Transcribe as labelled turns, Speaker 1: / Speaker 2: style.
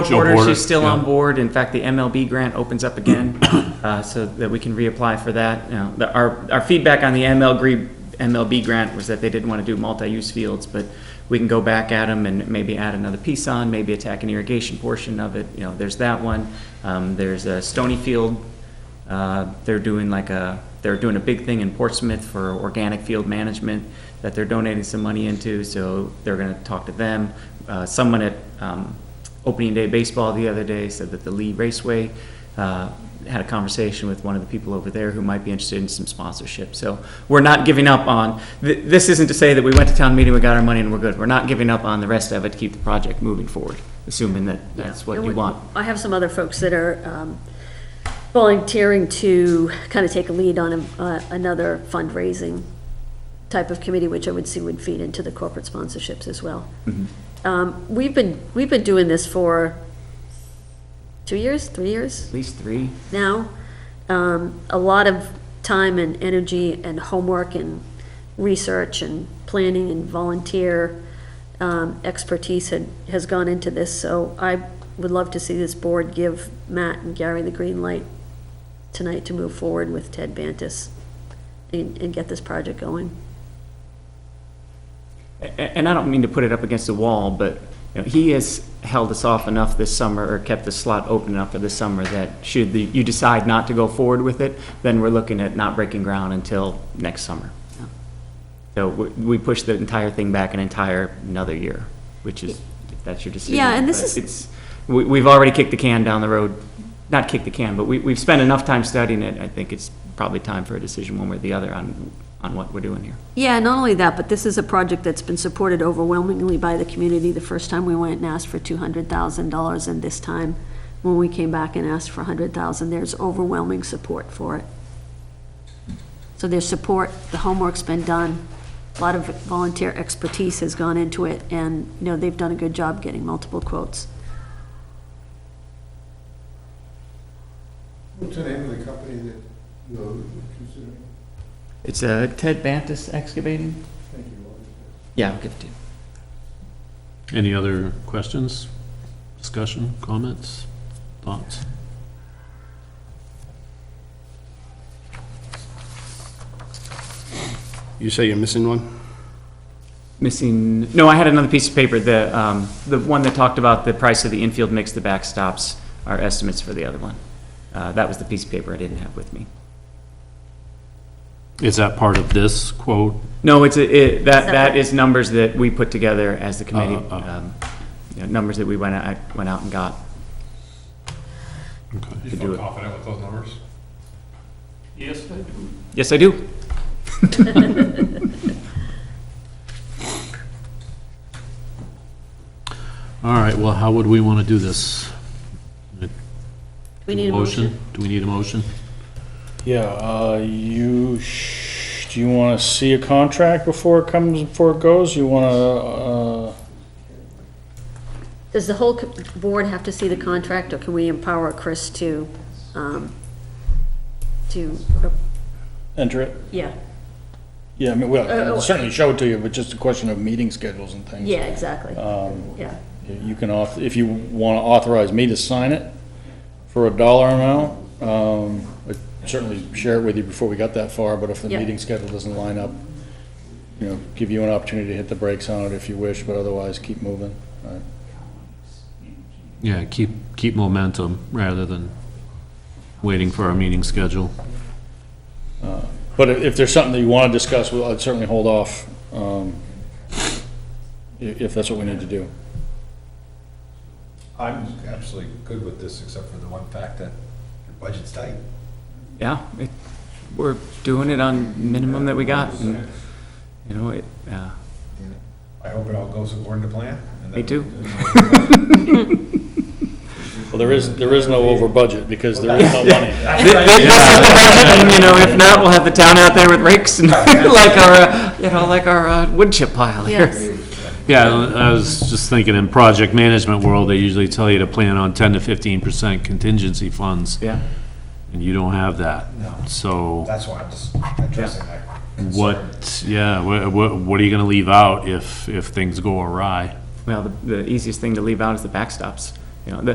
Speaker 1: She'll
Speaker 2: Porter,
Speaker 1: board
Speaker 2: she's
Speaker 1: it,
Speaker 2: still
Speaker 1: yeah.
Speaker 2: on board. In fact, the MLB grant opens up again, uh, so that we can reapply for that. You know, the- Our, our feedback on the ML gre- MLB grant was that they didn't want to do multi-use fields, but we can go back at them and maybe add another piece on, maybe attack an irrigation portion of it. You know, there's that one. Um, There's a Stony Field, uh, they're doing like a, they're doing a big thing in Portsmouth for organic field management that they're donating some money into, so they're going to talk to them. Uh, Someone at um, opening day baseball the other day said that the Lee Raceway uh, had a conversation with one of the people over there who might be interested in some sponsorship. So we're not giving up on, th- this isn't to say that we went to town meeting, we got our money, and we're good. We're not giving up on the rest of it to keep the project moving forward, assuming that that's what
Speaker 3: And
Speaker 2: you
Speaker 3: we-
Speaker 2: want.
Speaker 3: I have some other folks that are um, volunteering to kind of take a lead on a- uh, another fundraising type of committee, which I would see would feed into the corporate sponsorships as well.
Speaker 2: Mm-hmm.
Speaker 3: Um, We've been, we've been doing this for two years, three years
Speaker 2: At least three.
Speaker 3: now. Um, A lot of time and energy and homework and research and planning and volunteer um, expertise had, has gone into this, so I would love to see this board give Matt and Gary the green light tonight to move forward with Ted Bantis and, and get this project going.
Speaker 2: A- And I don't mean to put it up against the wall, but you know, he has held us off enough this summer, or kept the slot open enough for this summer, that should the- you decide not to go forward with it, then we're looking at not breaking ground until next summer. So we we pushed the entire thing back an entire, another year, which is, if that's your decision.
Speaker 3: Yeah, and this
Speaker 2: but
Speaker 3: is-
Speaker 2: It's, we- we've already kicked the can down the road, not kicked the can, but we- we've spent enough time studying it, I think it's probably time for a decision one way or the other on, on what we're doing here.
Speaker 3: Yeah, not only that, but this is a project that's been supported overwhelmingly by the community. The first time we went and asked for two hundred thousand dollars, and this time, when we came back and asked for a hundred thousand, there's overwhelming support for it. So there's support, the homework's been done, a lot of volunteer expertise has gone into it, and, you know, they've done a good job getting multiple quotes.
Speaker 4: What's the name of the company that you're considering?
Speaker 2: It's uh, Ted Bantus Excavating?
Speaker 4: Thank you, Roger.
Speaker 2: Yeah, I'll give it to you.
Speaker 1: Any other questions, discussion, comments, thoughts?
Speaker 5: You say you're missing one?
Speaker 2: Missing, no, I had another piece of paper, the, um, the one that talked about the price of the infield mix, the backstops, our estimates for the other one. Uh, That was the piece of paper I didn't have with me.
Speaker 1: Is that part of this quote?
Speaker 2: No, it's, a- it, that, that
Speaker 3: Separate.
Speaker 2: is numbers that we put together as the committee,
Speaker 1: Oh, oh, oh.
Speaker 2: um, you know, numbers that we went out, went out and got.
Speaker 1: Okay.
Speaker 6: You
Speaker 2: to do
Speaker 6: feel
Speaker 2: it.
Speaker 6: confident with those numbers? Yes, I do.
Speaker 2: Yes, I do.
Speaker 1: All right, well, how would we want to do this?
Speaker 3: We need a motion.
Speaker 1: Do we need a motion?
Speaker 7: Yeah, uh, you, sh- do you wanna see a contract before it comes, before it goes? You wanna, uh,
Speaker 3: Does the whole co- board have to see the contract, or can we empower Chris to, um, to, uh,
Speaker 7: enter it?
Speaker 3: yeah,
Speaker 7: Yeah, I mean, well,
Speaker 3: Uh,
Speaker 7: I'll certainly show it to you, but just a question of meeting schedules and things.
Speaker 3: yeah, exactly,
Speaker 7: Um,
Speaker 3: yeah.
Speaker 7: you can auth, if you wanna authorize me to sign it for a dollar amount, um, I'd certainly share it with you before we got that far, but if the
Speaker 3: Yeah.
Speaker 7: meeting schedule doesn't line up, you know, give you an opportunity to hit the brakes on it if you wish, but otherwise, keep moving. All right.
Speaker 1: Yeah, keep, keep momentum rather than waiting for our meeting schedule.
Speaker 7: But if if there's something that you want to discuss, well, I'd certainly hold off, um, i- if that's what we need to do.
Speaker 6: I'm absolutely good with this, except for the one fact that your budget's tight.
Speaker 2: Yeah, it, we're doing it on minimum that we got, Mm. and, you know, it, uh,
Speaker 6: I hope it all goes according to plan. and
Speaker 2: Me
Speaker 6: that-
Speaker 2: too.
Speaker 7: Well, there is, there is no over budget, because there is no money.
Speaker 2: And, you know, if not, we'll have the town out there with rakes and like our, uh, you know, like our uh, wood chip pile
Speaker 3: Yes.
Speaker 2: here.
Speaker 1: Yeah, I was just thinking, in project management world, they usually tell you to plan on 10 to 15% contingency funds,
Speaker 2: Yeah.
Speaker 1: and you don't have that. So.
Speaker 6: That's why I'm just addressing that. concern.
Speaker 1: What, yeah, what, what are you gonna leave out if, if things go awry?
Speaker 2: Well, the, the easiest thing to leave out is the backstops. You know, the,